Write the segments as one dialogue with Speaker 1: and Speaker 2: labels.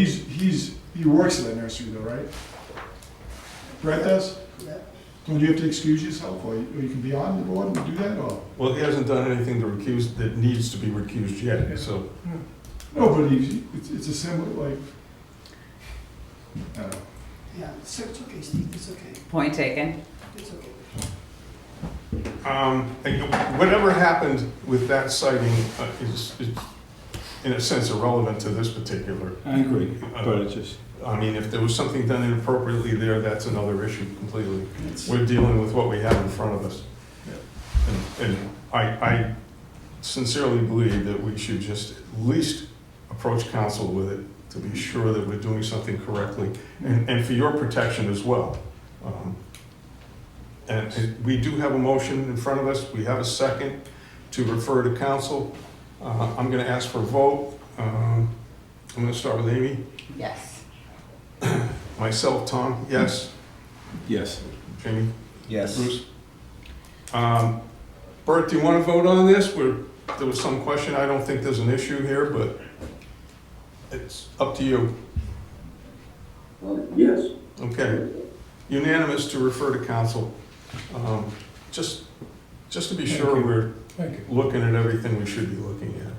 Speaker 1: He's, he's, he works at that nursery though, right? Brett does?
Speaker 2: Yeah.
Speaker 1: Don't you have to excuse yourself, or you, or you can be on the board and do that, or?
Speaker 3: Well, he hasn't done anything to recuse, that needs to be recused yet, so.
Speaker 1: No, but he, it's, it's a similar, like, I don't know.
Speaker 2: Yeah, so it's okay, Steve, it's okay,
Speaker 4: Point taken.
Speaker 2: it's okay.
Speaker 3: Um, and whatever happened with that sighting uh, is, is, in a sense, irrelevant to this particular. Uh,
Speaker 5: I agree, but it's just,
Speaker 3: I mean, if there was something done inappropriately there, that's another issue completely. We're dealing with what we have in front of us. And, and I, I sincerely believe that we should just at least approach council with it to be sure that we're doing something correctly and, and for your protection as well. Um, And it- we do have a motion in front of us, we have a second to refer to council. Uh, I'm gonna ask for a vote. Um, I'm gonna start with Amy.
Speaker 4: Yes.
Speaker 3: Myself, Tom, yes.
Speaker 5: yes.
Speaker 3: Jamie?
Speaker 6: Yes.
Speaker 3: Bruce? Um, Bert, do you want to vote on this? We're, there was some question, I don't think there's an issue here, but it's up to you.
Speaker 5: Uh,
Speaker 7: Yes,
Speaker 3: Okay. Unanimous to refer to council. Um, Just, just to be sure we're
Speaker 5: Thank you.
Speaker 3: looking at everything we should be looking at.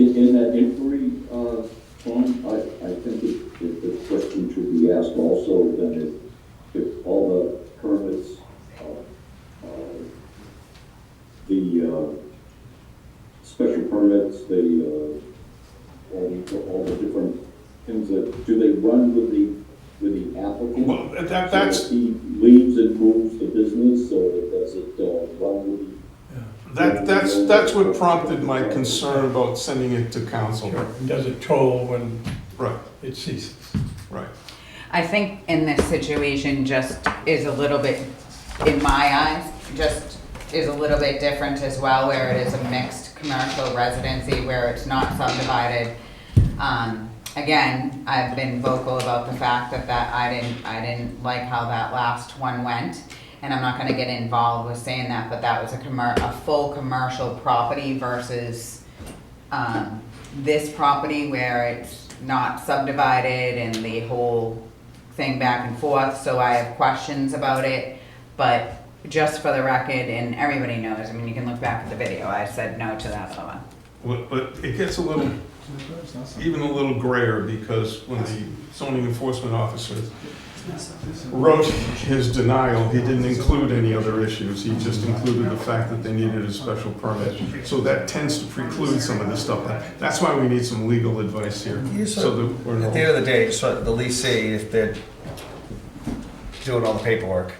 Speaker 7: in, in that inquiry, uh, form, I, I think it, it, the question should be asked also then if, if all the permits, uh, uh, the, uh, special permits, the, uh, all, the- all the different things that, do they run with the, with the applicant?
Speaker 3: Well, that,
Speaker 7: So
Speaker 3: that's,
Speaker 7: if He leaves and moves the business, or does it, uh, run with the
Speaker 3: that, that's, that's what prompted my concern about sending it to council.
Speaker 8: Does it toll when
Speaker 3: Right,
Speaker 8: it ceases?
Speaker 3: right.
Speaker 4: I think in this situation just is a little bit, in my eyes, just is a little bit different as well, where it is a mixed commercial residency, where it's not subdivided. Um, again, I've been vocal about the fact that that, I didn't, I didn't like how that last one went. And I'm not gonna get involved with saying that, but that was a commer, a full commercial property versus um, this property where it's not subdivided and the whole thing back and forth, so I have questions about it. But just for the record, and everybody knows, I mean, you can look back at the video, I said no to that other one.
Speaker 3: Well, But it gets a little
Speaker 1: It's not something-
Speaker 3: even a little grayer because when the zoning enforcement officer
Speaker 2: It's not something.
Speaker 1: it's a-
Speaker 3: wrote his denial, he didn't include any other issues. He just included the fact that they needed a special permit. So that tends to preclude some of this stuff. That's why we need some legal advice here.
Speaker 6: You said-
Speaker 3: So that we're
Speaker 6: At
Speaker 3: not,
Speaker 6: the end of the day, so the leasing, if they're doing all the paperwork,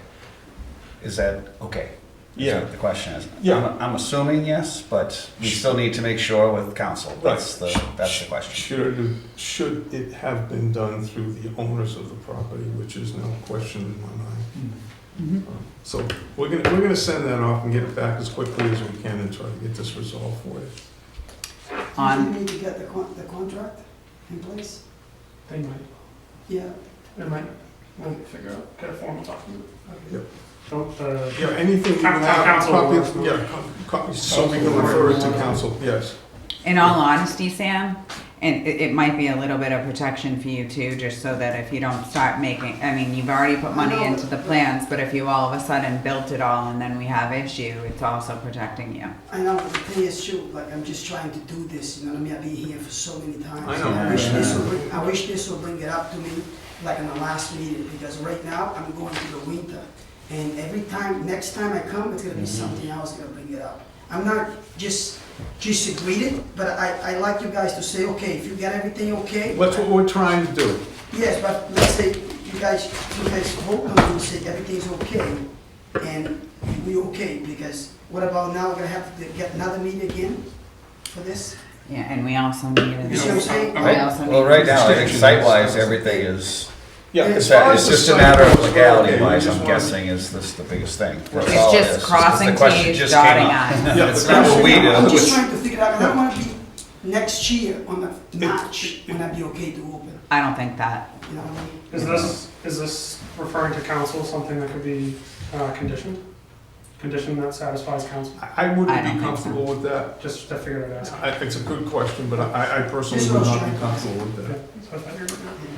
Speaker 6: is that okay? Is
Speaker 3: Yeah.
Speaker 6: what The question is.
Speaker 3: Yeah.
Speaker 6: I'm- I'm assuming yes, but we still need to make sure with council. That's the, that's the question.
Speaker 3: should, it- should it have been done through the owners of the property, which is no question in my mind.
Speaker 1: Hmm.
Speaker 3: So we're gonna, we're gonna send that off and get it back as quickly as we can and try to get this resolved for you.
Speaker 4: On-
Speaker 2: Do you need to get the con, the contract in place?
Speaker 8: They might,
Speaker 2: Yeah,
Speaker 8: they might, we'll figure out, get a formal document.
Speaker 3: Yep.
Speaker 8: Don't, uh,
Speaker 3: Yeah, anything you
Speaker 8: Council-
Speaker 3: have,
Speaker 8: council
Speaker 3: copy,
Speaker 8: will-
Speaker 3: yeah, co- co- so we can refer it to council, yes.
Speaker 4: In all honesty, Sam, and it, it might be a little bit of protection for you too, just so that if you don't start making, I mean, you've already put money into the plans, but if you all of a sudden built it all and then we have issue, it's also protecting you.
Speaker 2: I know, but the thing is, shoot, like, I'm just trying to do this, you know what I mean, I've been here for so many times.
Speaker 3: I know.
Speaker 2: wish this would, bring- I wish this would bring it up to me, like in the last meeting, because right now, I'm going through the winter. And every time, next time I come, it's gonna be something else gonna bring it up. I'm not just, just agreed it, but I, I like you guys to say, okay, if you get everything okay.
Speaker 3: That's what we're trying to do.
Speaker 2: Yes, but let's say you guys, you guys vote on it and say everything's okay, and we okay, because what about now, we're gonna have to get another meeting again for this?
Speaker 4: Yeah, and we also need. a-
Speaker 2: You see what I'm saying?
Speaker 4: We also
Speaker 6: Well,
Speaker 4: need-
Speaker 6: right now, I think
Speaker 3: Extension.
Speaker 6: site-wise, everything is,
Speaker 3: Yeah, as
Speaker 6: it's
Speaker 3: far as
Speaker 6: it's
Speaker 3: the
Speaker 6: just a
Speaker 3: site
Speaker 6: matter of
Speaker 3: goes, we're okay. We
Speaker 6: legality-wise,
Speaker 3: just
Speaker 6: I'm
Speaker 3: wanna-
Speaker 6: guessing, is this the biggest thing? That's
Speaker 4: It's
Speaker 6: all it
Speaker 4: just
Speaker 6: is, 'cause the
Speaker 4: crossing
Speaker 6: question
Speaker 4: Ts,
Speaker 6: just came
Speaker 4: dotting
Speaker 6: up.
Speaker 4: Is.
Speaker 3: Yeah,
Speaker 6: It's
Speaker 3: but
Speaker 6: not what we do.
Speaker 2: I'm just
Speaker 6: it's-
Speaker 2: trying to figure out, I don't wanna be next year on the March, when I'd be okay to open,
Speaker 4: I don't think that.
Speaker 2: you know what I mean?
Speaker 8: is this, is this referring to council, something that could be uh, conditioned? condition that satisfies council,
Speaker 3: I I
Speaker 4: I don't
Speaker 3: wouldn't be
Speaker 4: think so.
Speaker 3: comfortable with that.
Speaker 8: just to figure it out.
Speaker 3: I- It's a good question, but I I personally
Speaker 2: This
Speaker 3: would
Speaker 2: was
Speaker 3: not
Speaker 2: trying
Speaker 3: be
Speaker 2: to-
Speaker 3: comfortable with that.
Speaker 8: Okay, so if I hear it now.